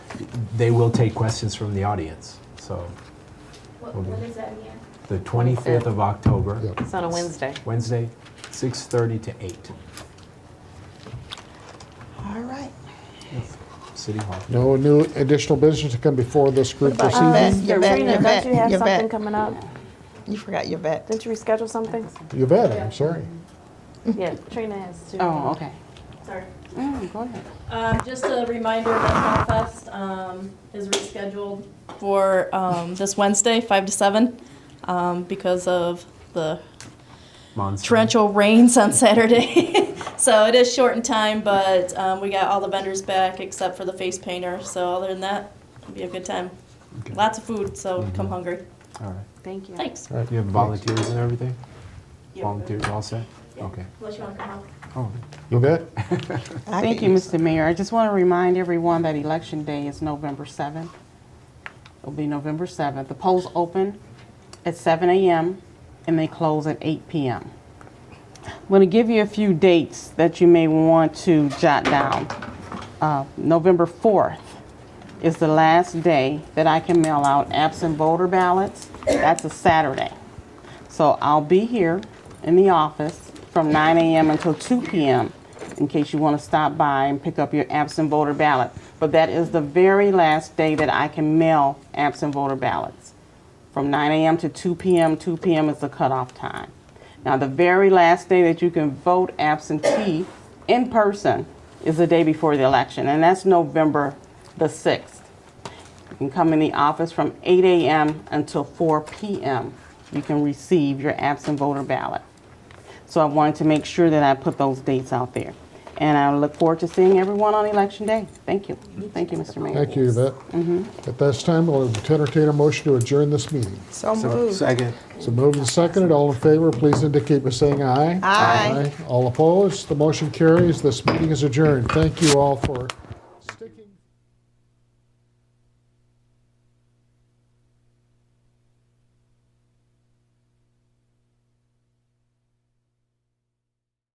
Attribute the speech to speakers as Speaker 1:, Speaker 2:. Speaker 1: they will take questions from the audience. So
Speaker 2: What,
Speaker 1: Okay.
Speaker 2: what is that again?
Speaker 1: the 25th of October,
Speaker 3: Yep.
Speaker 4: It's on a Wednesday.
Speaker 1: Wednesday, 6:30 to 8,
Speaker 5: All right.
Speaker 1: City Hall.
Speaker 3: No new additional business to come before this group
Speaker 5: What
Speaker 3: this
Speaker 5: about
Speaker 3: evening?
Speaker 5: Yvette? Yvette,
Speaker 4: Sabrina,
Speaker 5: Yvette,
Speaker 4: don't you have
Speaker 5: Yvette.
Speaker 4: something coming up?
Speaker 5: You forgot your bet.
Speaker 4: Did you reschedule something?
Speaker 6: Mm-hmm.
Speaker 3: Yvette, I'm sorry.
Speaker 4: Yeah, Trina has to.
Speaker 6: Oh, okay.
Speaker 7: Sorry.
Speaker 6: Mm, go ahead.
Speaker 7: Um, just a reminder that Fest, um, is rescheduled for, um, this Wednesday, five to seven, um, because of the
Speaker 1: Monson.
Speaker 7: torrential rains on Saturday. so it is short in time, but, um, we got all the vendors back except for the face painter. So other than that, it'll be a good time.
Speaker 1: Okay. Mm-hmm.
Speaker 7: Lots of food, so come hungry.
Speaker 1: All right.
Speaker 4: Thank you.
Speaker 7: Thanks.
Speaker 3: All right.
Speaker 1: You have volunteers and everything?
Speaker 7: Yeah.
Speaker 1: Volunteers all set? Okay.
Speaker 7: Unless you want to come out.
Speaker 1: Oh,
Speaker 3: Yvette?
Speaker 5: I
Speaker 6: Thank
Speaker 5: could
Speaker 6: you,
Speaker 5: use-
Speaker 6: Mr. Mayor. I just want to remind everyone that Election Day is November 7th. It'll be November 7th. The polls open at 7 a.m. and they close at 8 p.m. I'm going to give you a few dates that you may want to jot down. Uh, November 4th is the last day that I can mail out absent voter ballots. That's a Saturday. So I'll be here in the office from 9 a.m. until 2 p.m. in case you want to stop by and pick up your absent voter ballot. But that is the very last day that I can mail absent voter ballots. From 9 a.m. to 2 p.m., 2 p.m. is the cutoff time. Now, the very last day that you can vote absentee in person is the day before the election, and that's November the 6th. You can come in the office from 8 a.m. until 4 p.m. You can receive your absent voter ballot. So I wanted to make sure that I put those dates out there. And I look forward to seeing everyone on Election Day. Thank you. Thank you, Mr. Mayor.
Speaker 3: Thank you, Yvette. At this time, I'll entertain a motion to adjourn this meeting.
Speaker 5: So
Speaker 1: So-
Speaker 5: moved.
Speaker 1: Second.
Speaker 3: So moved and seconded, all in favor, please indicate by saying aye.
Speaker 5: Aye.
Speaker 3: All opposed, the motion carries, this meeting is adjourned. Thank you all for